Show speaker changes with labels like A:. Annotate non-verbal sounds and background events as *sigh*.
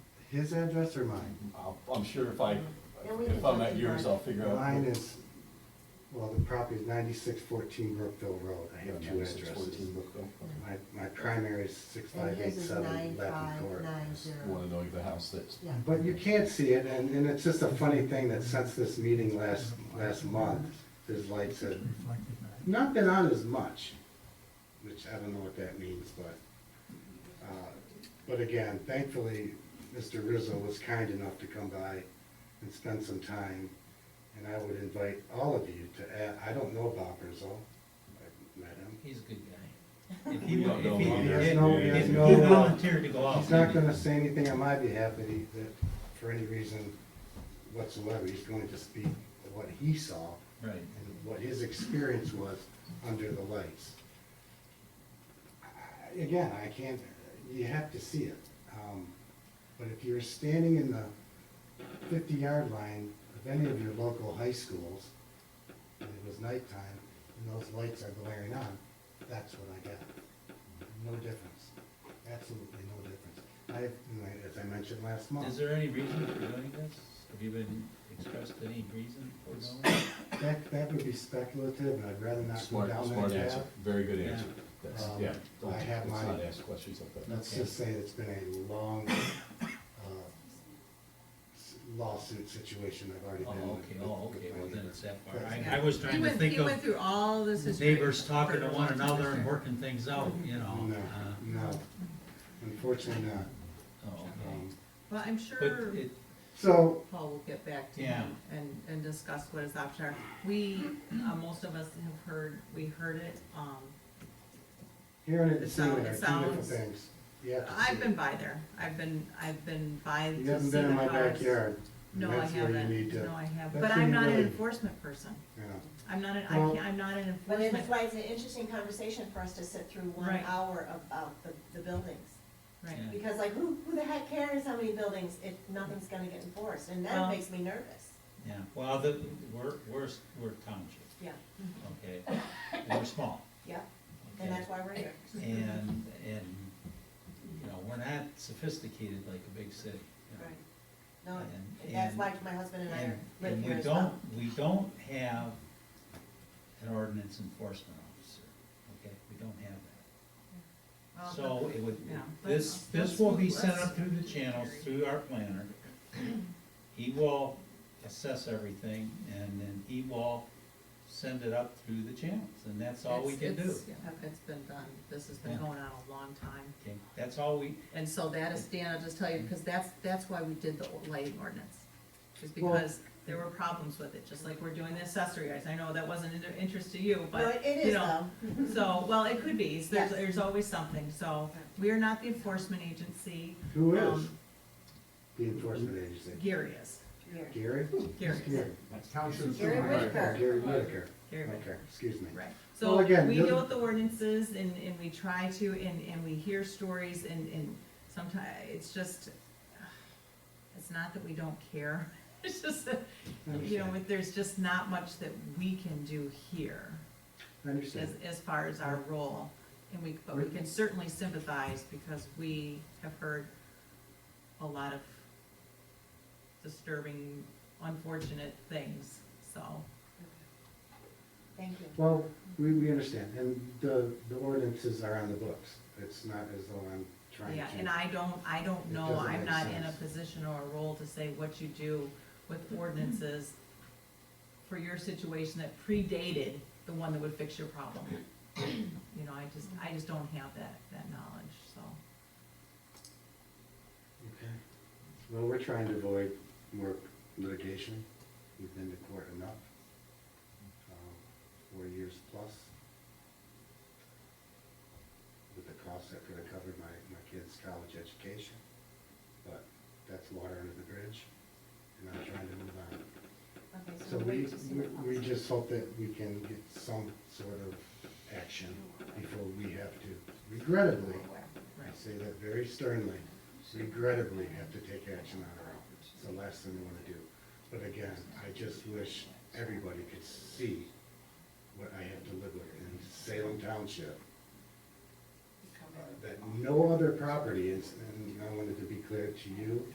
A: his address or mine?
B: I'll- I'm sure if I,
C: Then we
B: if
C: can
B: I'm
C: talk
B: at yours,
C: about-
B: I'll figure out.
A: Mine is, well, the property is ninety-six fourteen Brookville Road, I have two
B: 96, 14
A: addresses.
B: Brookville. Okay.
A: My, my primary is six
C: And
A: five eight
C: yours is
A: seven
C: nine
A: Lappin
C: five
A: Court.
C: nine
B: You
C: zero.
B: Wanna know the house that's.
C: Yeah.
A: But you can't see it, and, and it's just a funny thing that since this meeting last, last month, there's lights that, not been on as much, which I don't know what that means, but, uh, but again, thankfully, Mr. Rizzo was kind enough to come by and spend some time, and I would invite all of you to, add- I don't know Bob Rizzo, I've met him.
D: He's a good guy. If he,
B: We
D: wa-
B: don't know
D: if he,
B: him. He
A: has
D: if-
A: no- he has
D: if he
A: no, uh,
D: volunteered to go out.
A: He's not gonna say anything on my behalf that he, that, for any reason whatsoever, he's going to speak of what he saw
D: Right.
A: and what his experience was under the lights. I- Again, I can't, you have to see it. Um, But if you're standing in the fifty-yard line of any of your local high schools, and it was nighttime, and those lights are glaring on, that's what I got. No difference, absolutely no difference. I, as I mentioned last month.
D: Is there any reason for doing this? Have you been expressed any reason for doing it?
A: That, that would be speculative, and I'd rather not go
B: Smart,
A: down
B: smart
A: that
B: answer,
A: path.
B: very good answer.
D: Yeah.
B: That's,
A: Um,
B: yeah.
A: I have
B: Let's
A: mine.
B: not ask questions like that.
A: Let's just say it's been a long uh, s- lawsuit situation I've already been
D: Oh, okay,
A: with.
D: oh,
A: with
D: okay,
A: my
D: well then
A: neighbor.
D: it's that far.
A: That's-
D: I, I was
E: He
D: trying to
E: went,
D: think
E: he went
D: of
E: through all this history.
D: neighbors talking to
E: for
D: one
E: to
D: another and
E: understand.
D: working things out, you know?
A: No,
D: uh,
A: no, unfortunately not.
D: Oh, okay.
A: Um,
E: Well, I'm
D: But
E: sure
D: it,
A: So,
E: Paul will get back to
D: Yeah.
E: him and, and discuss what his options are. We, uh, most of us have heard, we heard it, um,
A: hearing it
E: It
A: and seeing
E: sound-
A: it
E: it
A: are two different
E: sounds-
A: things. You have to see
E: I've been
A: it.
E: by there. I've been, I've been by
A: You
E: to see
A: haven't
E: the
A: been in my
E: cars.
A: backyard. and
E: No, I
A: that's where you need
E: haven't,
A: to-
E: no, I haven't,
A: that's
E: but
A: when
E: I'm
A: you
E: not an
A: really-
E: enforcement person.
A: you know.
E: I'm not, an- I
A: Well-
E: can't, I'm not an
C: But
E: enforcement,
C: it's why it's an interesting conversation for us to sit through one
E: Right.
C: hour about the, the buildings.
E: right.
D: Yeah.
C: Because like, who, who the heck cares how many buildings if nothing's gonna get enforced? And
E: Well-
C: that makes me nervous.
D: yeah, well, the, we're, we're, we're township,
C: Yeah,
D: okay? And we're small.
C: yeah,
D: okay?
C: and that's why we're here.
D: And, and, you know, we're not sophisticated like a big city. you know?
C: Right. No,
D: And-
C: that's
D: and-
C: why my husband and I
D: And,
C: are live
D: and
C: here
D: we
C: as well.
D: don't, we don't have an ordinance enforcement officer, okay? We don't have that.
E: Well,
D: So it would,
E: yeah,
D: this,
E: let's-
D: this will be
E: let's-
D: sent up through the channels, through our
E: *clears throat*
D: planner. He will assess everything and then he will send it up through the channels and that's all we can
E: It's-
D: do.
E: it's- yeah, It's been done. This has been
D: Yeah.
E: going on a long time.
D: Okay, that's all we,
E: And so that is, Dan, I'll just tell you, because that's, that's why we did the lighting ordinance. Is
A: Well-
E: because there were problems with it, just like we're doing the accessory guys. I know that wasn't in interest to you,
C: No,
E: but,
C: it it
E: you
C: is
E: know.
C: though.
E: So, well, it could be. There's,
C: Yes.
E: there's always something. So we are not the enforcement agency.
A: Who is
E: Um,
A: the enforcement agency?
E: Gary is.
C: Here.
A: Gary?
E: Gary
A: Who's
E: is.
A: Gary?
C: Gary Whitaker.
A: Gary Whitaker.
E: Gary Whitaker.
A: Okay, excuse me. Well,
E: Right, so we
A: again,
E: deal
A: the-
E: with the ordinances and, and we try to, and, and we hear stories and, and sometimes, it's just, it's not that we don't care, *laughs* it's just that, you know,
A: Understand.
E: there's just not much that we can do here
A: I
E: as,
A: understand.
E: as far as our role. And we, but we can certainly sympathize because we have heard a lot of disturbing, unfortunate things, so.
C: Thank you.
A: Well, we, we understand, and the, the ordinances are on the books. It's not as though I'm trying
E: Yeah, and
A: to.
E: I don't, I don't
A: It
E: know,
A: doesn't
E: I'm
A: make
E: not in a
A: sense.
E: position or a role to say what you do with ordinances for your situation that predated the one that would fix your problem. You know, I just, I just don't have that, that knowledge, so.
A: Okay. Well, we're trying to avoid more litigation. We've been to court enough. um, Four years plus. With the cost that could have covered my, my kids' college education. But that's water under the bridge, and I'm trying to move on.
C: Okay,
A: So
C: we'll
A: we,
C: wait to see what
A: we we
C: comes.
A: just hope that we can get some sort of action before we have to regrettably, I
E: Right.
A: say that very sternly, regrettably have to take action on our own. It's the last thing we want to do. But again, I just wish everybody could see what I have to live with in Salem Township. uh, That no other property is, and I wanted to be clear to you